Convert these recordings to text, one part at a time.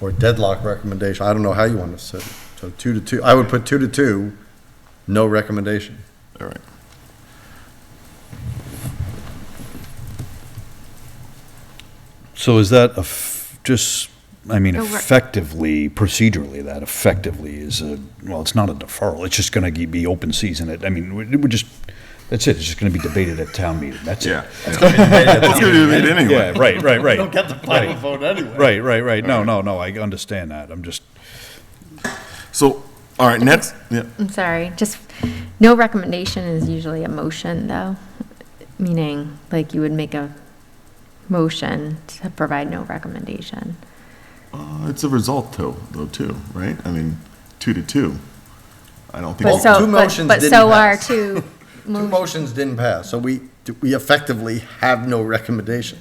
or deadlock recommendation, I don't know how you want to set it. So two to two, I would put two to two, no recommendation. All right. So is that a f- just, I mean, A re- effectively, procedurally, that effectively is a, well, it's not a deferral, it's just gonna be open season at, I mean, we- we're just, that's it, it's just gonna be debated at town meeting, that's it. Yeah. It's going to be debated Yeah, anyway. right, right, right. Don't get the final vote anyway. Right, right, right, no, no, no, I understand that, I'm just, So, all right, next, yeah, I'm sorry, just, no recommendation is usually a motion, though, meaning, like, you would make a motion to provide no recommendation. Uh, it's a result though, though, too, right? I mean, two to two. I don't Well, But think, so, two but motions but didn't so are pass. two, Two mo- motions didn't pass, so we, we effectively have no recommendation.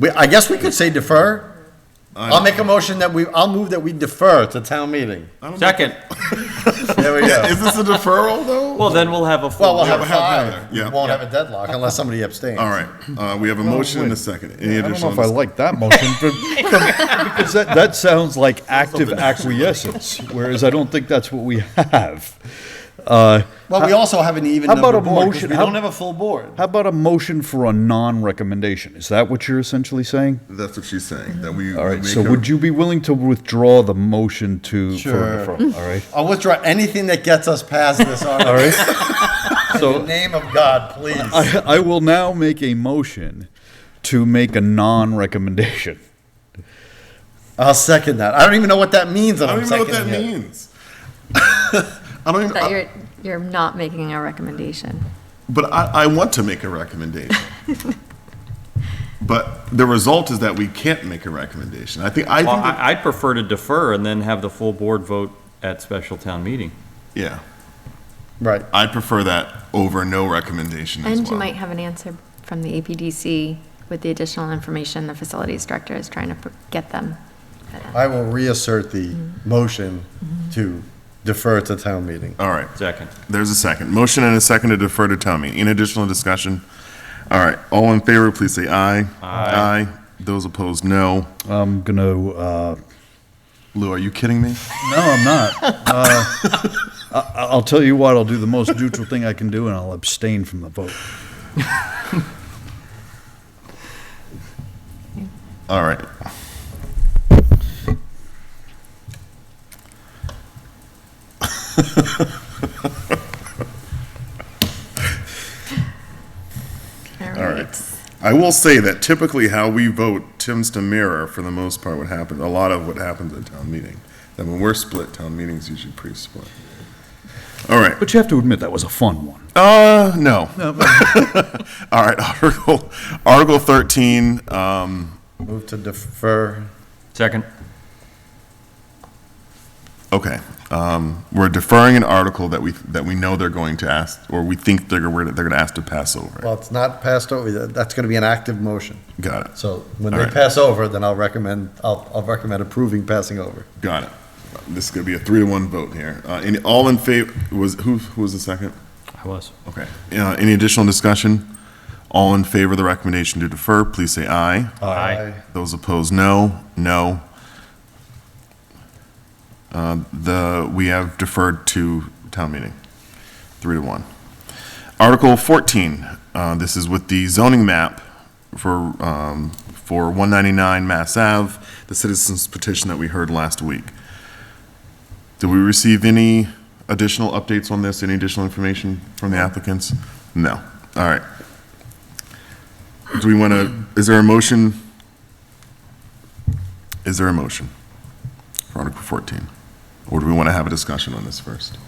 We, I guess we could say defer. I'll make a motion that we, I'll move that we defer to town meeting. Second. There we go. is this a deferral though? Well, then we'll have a full. Well, we'll have we'll have five. either, We yeah. won't have a deadlock unless somebody abstains. All right, uh, we have a motion and a second. Any I don't know additional? if I dis- like that motion, but, because that, that sounds like active acquiescence, whereas I don't think that's what we have. Uh, Well, we also have an even How about number a board, 'cause motion- we how- don't have a full board. How about a motion for a non-recommendation? Is that what you're essentially saying? That's what she's saying, that we. All right, make so a- would you be willing to withdraw the motion to, for Sure. a referral, all right? I'll withdraw anything that gets us past this article. In the So name of God, please. I, I will now make a motion to make a non-recommendation. I'll second that. I don't even know what that means. I don't even know what that means. means. I don't even, that I- you're, you're not making a recommendation. but I, I want to make a recommendation. But the result is that we can't make a recommendation. I think, I Well, think, that- I, I'd prefer to defer and then have the full board vote at special town meeting. yeah, Right. I prefer that over no recommendation as And you well. might have an answer from the APDC with the additional information the facilities director is trying to pr- get them. I will reassert the motion to defer to town meeting. All right. Second. There's a second. Motion and a second to defer to town meeting. Any additional discussion? All right, all in favor, please say aye. Aye. Those opposed, no. I'm gonna, uh, Lou, are you kidding me? no, I'm not. Uh, I, I'll tell you what, I'll do the most neutral thing I can do and I'll abstain from the vote. All right. All right. I will say that typically how we vote tends to mirror, for the most part, what happens, a lot of what happens at town meeting. That when we're split, town meeting's usually pretty split. All right. But you have to admit, that was a fun one. Uh, no. All right, Article, Article 13, um, Move to defer. Second. Okay, um, we're deferring an article that we, that we know they're going to ask, or we think they're, we're- they're gonna ask to pass over. Well, it's not passed over. yet. That's going to be an active motion. Got it, So when All they right. pass over, then I'll recommend, I'll, I'll recommend approving passing over. got it. This is gonna be a three to one vote here. Uh, any, all in favor, was, who, who was the second? I was. Okay, uh, any additional discussion? All in favor of the recommendation to defer, please say aye. Aye. Those opposed, no. No. Uh, The, we have deferred to town meeting, three to one. Article 14, uh, this is with the zoning map for, um, for 199 Mass Ave, the citizens petition that we heard last week. Did we receive any additional updates on this, any additional information from the applicants? No. All right. Do we want to, is there a motion? Is there a motion for Article 14? Or do we want to have a discussion on this first?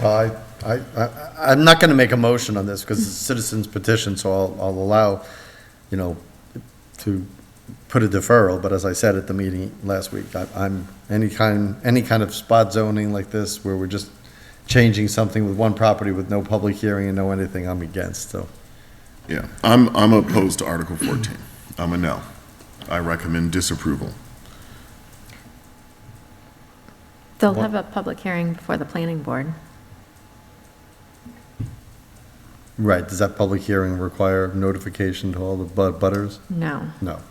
Well, I, I, I- I'm not going to make a motion on this because it's a citizen's petition, so I'll, I'll allow, you know, to put a deferral, but as I said at the meeting last week, I- I'm, any kind, any kind of spot zoning like this where we're just changing something with one property with no public hearing and no anything, I'm against, so. Yeah, I'm, I'm opposed to Article 14. I'm a no. I recommend disapproval. They'll have a public hearing before the planning board. Right, does that public hearing require notification to all the bud butters? No. No.